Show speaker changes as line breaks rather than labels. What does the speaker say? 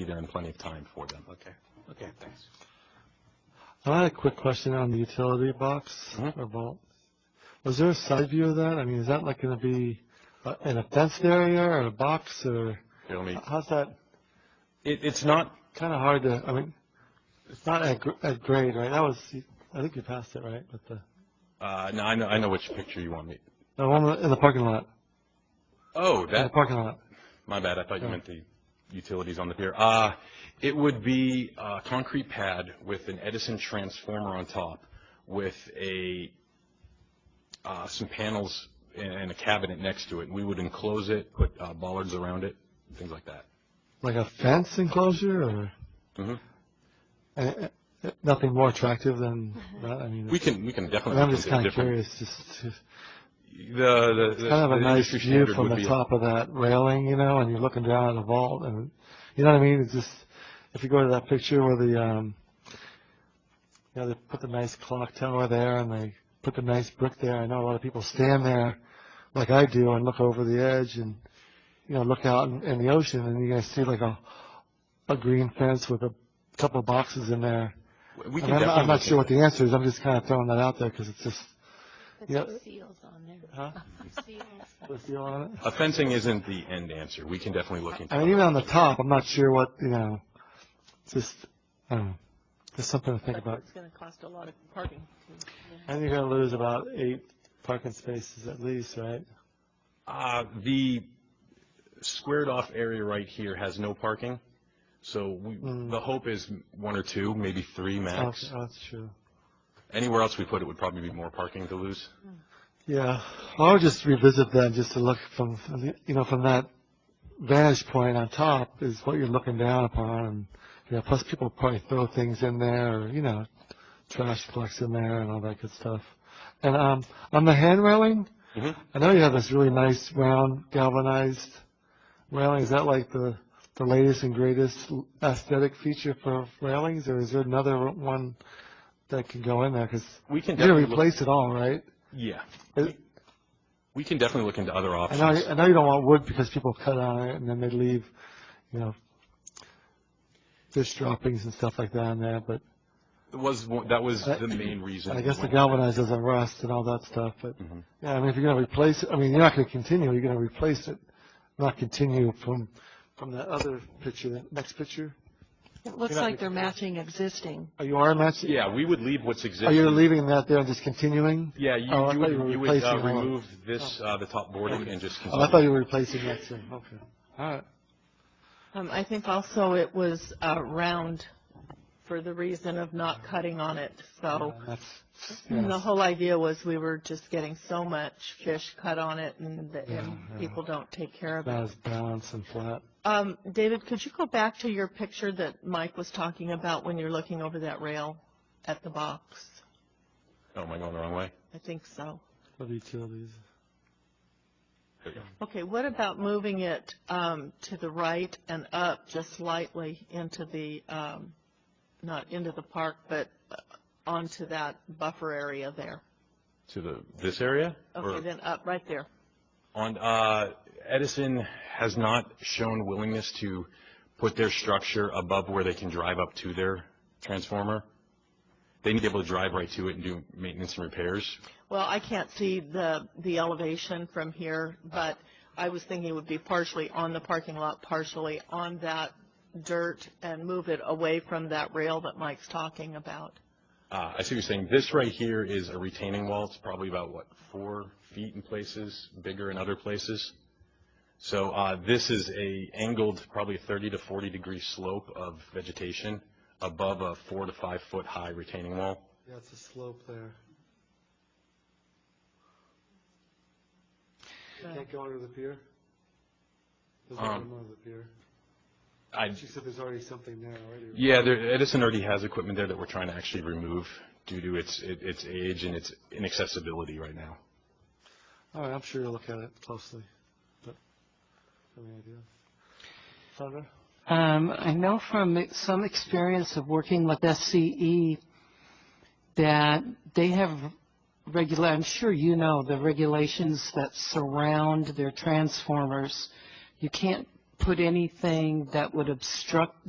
be there in plenty of time for them.
Okay, okay, thanks.
I had a quick question on the utility box
Mhm.
or vault. Was there a side view of that? I mean, is that like going to be uh, in a fenced area or a box or
Here, let me,
how's that?
it, it's not,
Kind of hard to, I mean, it's not at, gr- at grade, right? That was, I think you passed it, right? With the,
uh, no, I know, I know which picture you want me.
the one in the parking lot,
Oh,
in the
that,
parking lot.
my bad, I thought you meant the utilities on the pier. Uh, it would be a concrete pad with an Edison transformer on top with a, uh, some panels and a cabinet next to it. We would enclose it, put uh, bollards around it, and things like that.
Like a fence enclosure or?
Mhm.
Uh, uh, Nothing more attractive than that? I mean,
We can, we can definitely.
I'm just
look at
kind of
different-
curious, just to.
The, the, the
kind of a
the
nice
industry
view
standard
from
would
the
be.
top of that railing, you know, and you're looking down at the vault, and you know what I mean. It's just if you go to that picture where the, um, you know, they put the nice clock tower there, and they put the nice brick there. I know a lot of people stand there, like I do, and look over the edge, and you know, look out in, in the ocean, and you guys see like a a green fence with a couple boxes in there.
We can
And I'm,
definitely
I'm not
look
sure
at
what the answer is. I'm just kind of throwing that out there because it's just
Put
Yeah.
some seals on there.
huh?
Seals.
What's the deal on it?
Uh, fencing isn't the end answer. We can definitely look into
I mean,
it.
even on the top, I'm not sure what, you know, just, I don't know, just something to think about.
It's gonna cost a lot of parking.
And you're gonna lose about eight parking spaces at least, right?
Uh, the squared off area right here has no parking. So we,
Mm.
the hope is one or two, maybe three
Oh,
max.
that's true.
Anywhere else we put it would probably be more parking to lose.
Yeah, I'll just revisit that just to look from, you know, from that vantage point on top is what you're looking down upon. And, you know, plus people probably throw things in there, or, you know, trash collects in there and all that good stuff. And um, on the hand railing,
Mhm.
I know you have this really nice round galvanized railing. Is that like the the latest and greatest aesthetic feature for railings, or is there another one that can go in there? Because
We can
you're gonna
definitely look-
replace it all, right?
Yeah.
It-
We can definitely look into other
I
options.
know, I know you don't want wood because people cut on it and then they leave, you know, fish droppings and stuff like that in there, but
It was, one- that was
I-
the main reason.
I
we
guess the
went-
galvanized doesn't rust and all that stuff, but,
Mhm.
yeah, I mean, if you're gonna replace it, I mean, you're not gonna continue, you're gonna replace it, not continue from, from that other picture, that next picture.
It looks like they're matching existing.
Are you are matching?
Yeah, we would leave what's existing.
Are you Oh, leaving that there and just continuing?
Yeah, you,
Oh, I
you
thought you were
would, you would uh,
replacing all of-
remove this, uh, the top boarding and just
Oh, I thought
continue.
you were replacing that too, okay. All right.
Um, I think also it was, uh, round for the reason of not cutting on it, so.
Yeah, that's-
And the
yes.
whole idea was we were just getting so much fish cut on it and, that- and
Yeah, yeah.
people don't take care of
That
it.
was balanced and flat.
Um, David, could you go back to your picture that Mike was talking about when you're looking over that rail at the box?
Oh, am I going the wrong way?
I think so.
for the utilities.
There you go.
Okay, what about moving it um, to the right and up just slightly into the, um, not into the park, but uh, onto that buffer area there?
To the, this area? Or-
Okay, then up, right there.
On, uh, Edison has not shown willingness to put their structure above where they can drive up to their transformer. They need to be able to drive right to it and do maintenance and repairs.
Well, I can't see the, the elevation from here, but I was thinking it would be partially on the parking lot, partially on that dirt, and move it away from that rail that Mike's talking about.
Uh, I see what you're saying. This right here is a retaining wall. It's probably about, what, four feet in places, bigger in other places. So, uh, this is a angled, probably 30 to 40 degree slope of vegetation above a four to five foot high retaining wall.
Yeah, it's a slope there. You can't go under the pier? There's no
Um,
room under the pier.
I,
She said there's already something there already.
Yeah, there, Edison already has equipment there that we're trying to actually remove due to its, it- its age and its inaccessibility right now.
All right, I'm sure you'll look at it closely, but, any idea? Sandra?
Um, I know from some experience of working with SCE that they have regular, I'm sure you know the regulations that surround their transformers. You can't put anything that would obstruct